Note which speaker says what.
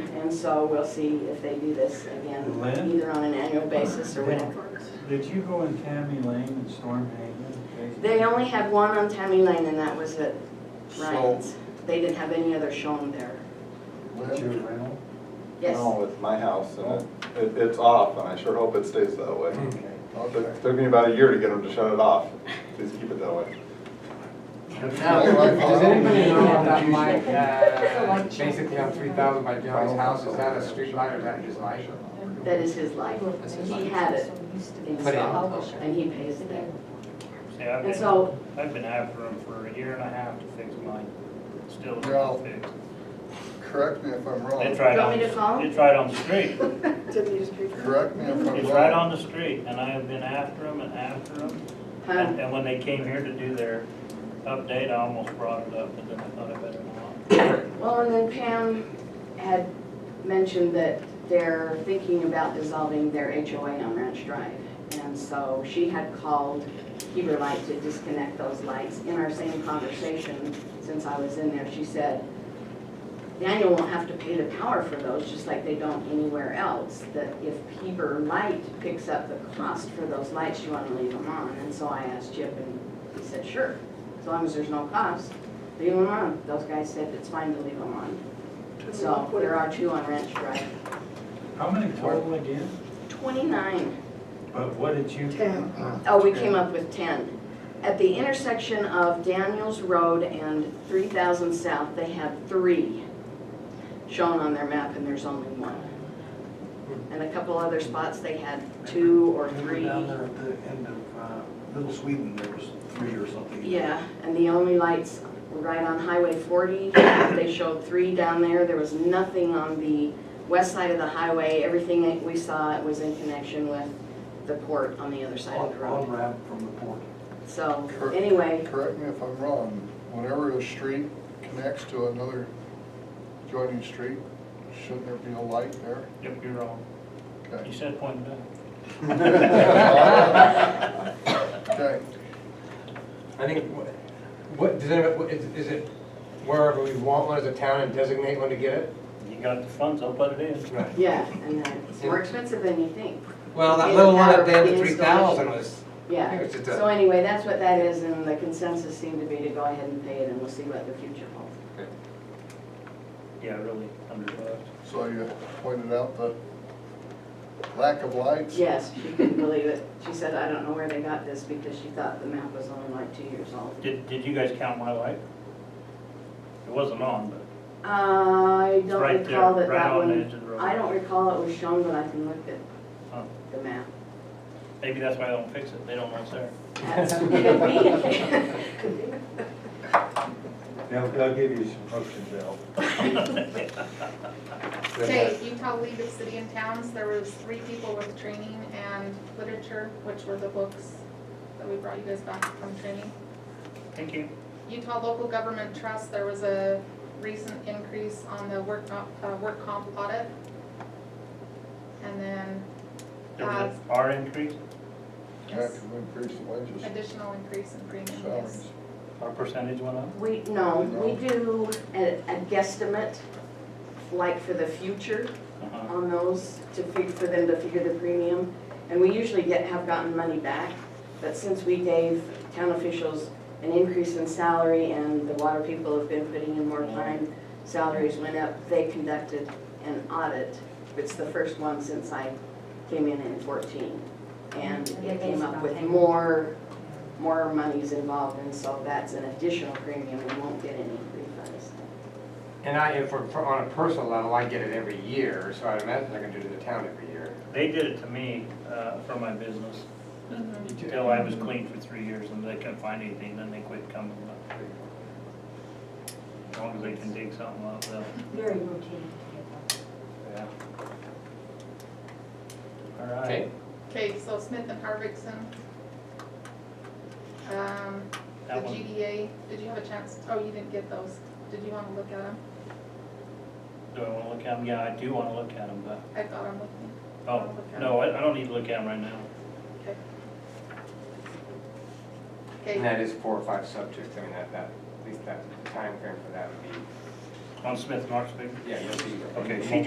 Speaker 1: And so we'll see if they do this again,
Speaker 2: Lynn?
Speaker 1: either on an annual basis or whatever.
Speaker 2: Did you go in Tammy Lane and Storm Haven?
Speaker 1: They only had one on Tammy Lane and that was at
Speaker 3: So,
Speaker 1: Ryan's. They didn't have any other shown there.
Speaker 2: That's your rental?
Speaker 1: Yes,
Speaker 3: No, it's my house and it- it, it's off and I sure hope it stays that way.
Speaker 2: Okay.
Speaker 3: It took- Took me about a year to get them to shut it off. Please keep it that way.
Speaker 4: Does anybody know that like, uh, basically on three thousand by Johnny's house, is that a street light or is that his light?
Speaker 1: that is his life.
Speaker 4: That's his
Speaker 1: He
Speaker 4: life.
Speaker 1: had it
Speaker 4: Put in,
Speaker 1: installed
Speaker 4: okay.
Speaker 1: and he pays it there.
Speaker 5: Yeah, I've
Speaker 1: And
Speaker 5: been,
Speaker 1: so,
Speaker 5: I've been after them for a year and a half to fix mine, still
Speaker 6: Well,
Speaker 5: not fixed.
Speaker 6: Correct me if I'm
Speaker 5: It's
Speaker 6: wrong.
Speaker 5: right
Speaker 1: You
Speaker 5: on,
Speaker 1: want me to call 'em?
Speaker 5: it's right on the street,
Speaker 6: Correct me if I'm wrong.
Speaker 5: it's right on the street, and I have been after them and after them.
Speaker 1: huh,
Speaker 5: And and when they came here to do their update, I almost brought it up, but then I thought I better not.
Speaker 1: well, and then Pam had mentioned that they're thinking about dissolving their HOA on Ranch Drive. And so she had called Heber Light to disconnect those lights. In our same conversation, since I was in there, she said, Daniel won't have to pay the power for those, just like they don't anywhere else. That if Heber Light picks up the cost for those lights, you want to leave them on. And so I asked Chip, and he said, sure, as long as there's no cost, leave them on. Those guys said it's fine to leave them on. So there are two on Ranch Drive.
Speaker 2: How many total again?
Speaker 1: Twenty-nine.
Speaker 2: But what did you?
Speaker 1: Oh, we came up with 10. At the intersection of Daniels Road and 3000 South, they have three shown on their map, and there's only one. And a couple other spots, they had two or
Speaker 7: Remember
Speaker 1: three.
Speaker 7: down there at the end of uh, Little Sweden, there was three or something.
Speaker 1: Yeah, and the only lights were right on Highway 40. They showed three down there. There was nothing on the west side of the highway. Everything that we saw was in connection with the port on the other side of
Speaker 7: On
Speaker 1: the
Speaker 7: on
Speaker 1: road.
Speaker 7: ramp from the port.
Speaker 1: So, anyway,
Speaker 6: Correct me if I'm wrong, whenever a street connects to another joining street, shouldn't there be a light there?
Speaker 5: Yep, you're wrong. You
Speaker 6: Okay.
Speaker 5: said point down.
Speaker 6: Okay,
Speaker 4: I think, wh- what, does anybody, what- is is it wherever we want one as a town and designate one to get it?
Speaker 5: You got the funds, I'll put it in.
Speaker 4: Right.
Speaker 1: Yeah, and then it's more expensive than you think.
Speaker 4: Well, that
Speaker 1: Yeah,
Speaker 4: little one
Speaker 1: power
Speaker 4: up there, the three
Speaker 1: installation.
Speaker 4: thousand was, I
Speaker 1: Yeah.
Speaker 4: think it's just
Speaker 1: So
Speaker 4: a,
Speaker 1: anyway, that's what that is, and the consensus seemed to be to go ahead and pay it, and we'll see what the future holds.
Speaker 5: Yeah, really, hundred bucks.
Speaker 6: so you pointed out the lack of lights.
Speaker 1: Yes, she couldn't believe it. She said, I don't know where they got this, because she thought the map was only like two years old.
Speaker 5: Did, did you guys count my light? It wasn't on, but
Speaker 1: I
Speaker 5: it's
Speaker 1: don't
Speaker 5: right there,
Speaker 1: recall that
Speaker 5: right
Speaker 1: that
Speaker 5: on the edge
Speaker 1: one,
Speaker 5: of the road. Oh.
Speaker 1: I don't recall it was shown, but I can look
Speaker 5: Huh.
Speaker 1: at the map.
Speaker 5: Maybe that's why they don't fix it, they don't know it's there.
Speaker 1: That's, could be.
Speaker 2: They'll, they'll give you some options, Bill.
Speaker 8: Okay, Utah League of City and Towns, there was three people with training and literature, which were the books that we brought you guys back from training.
Speaker 5: Thank you.
Speaker 8: Utah Local Government Trust, there was a recent increase on the work, comp- uh, work comp audit. And then
Speaker 5: There was an R increase,
Speaker 6: That
Speaker 8: yes,
Speaker 6: could increase the wages,
Speaker 8: additional increase in premium, yes.
Speaker 6: salaries.
Speaker 5: our percentage went up.
Speaker 1: We, no, we do a a guesstimate, like for the future,
Speaker 5: Uh-huh.
Speaker 1: on those to, fig- for them to figure the premium. And we usually get, have gotten money back, but since we gave town officials an increase in salary and the water people have been putting in more time, salaries went up, they conducted an audit. It's the first one since I came in in fourteen. And it came up with more, more monies involved, and so that's an additional premium, we won't get any refunds.
Speaker 4: and I, if we're, for- on a personal level, I get it every year, so I'd imagine I can do it to the town every year.
Speaker 5: They did it to me uh, for my business until I was clean for three years and they couldn't find anything, then they quit coming up. As long as they can dig something up, they'll.
Speaker 9: Very routine.
Speaker 5: Yeah. All
Speaker 4: Okay.
Speaker 5: right,
Speaker 8: Okay, so Smith and Harvickson. Um, the
Speaker 5: that one,
Speaker 8: GDA, did you have a chance, oh, you didn't get those, did you wanna look at them?
Speaker 5: do I wanna look at them? Yeah, I do wanna look at them, but,
Speaker 8: I thought I'm looking.
Speaker 5: oh, no, I I don't need to look at them right now.
Speaker 8: Okay,
Speaker 4: And that is four or five subjects, I mean, that, that, at least that, the timeframe for that would be,
Speaker 5: On Smith Marksville?
Speaker 4: yeah, you'll see.
Speaker 5: Okay, she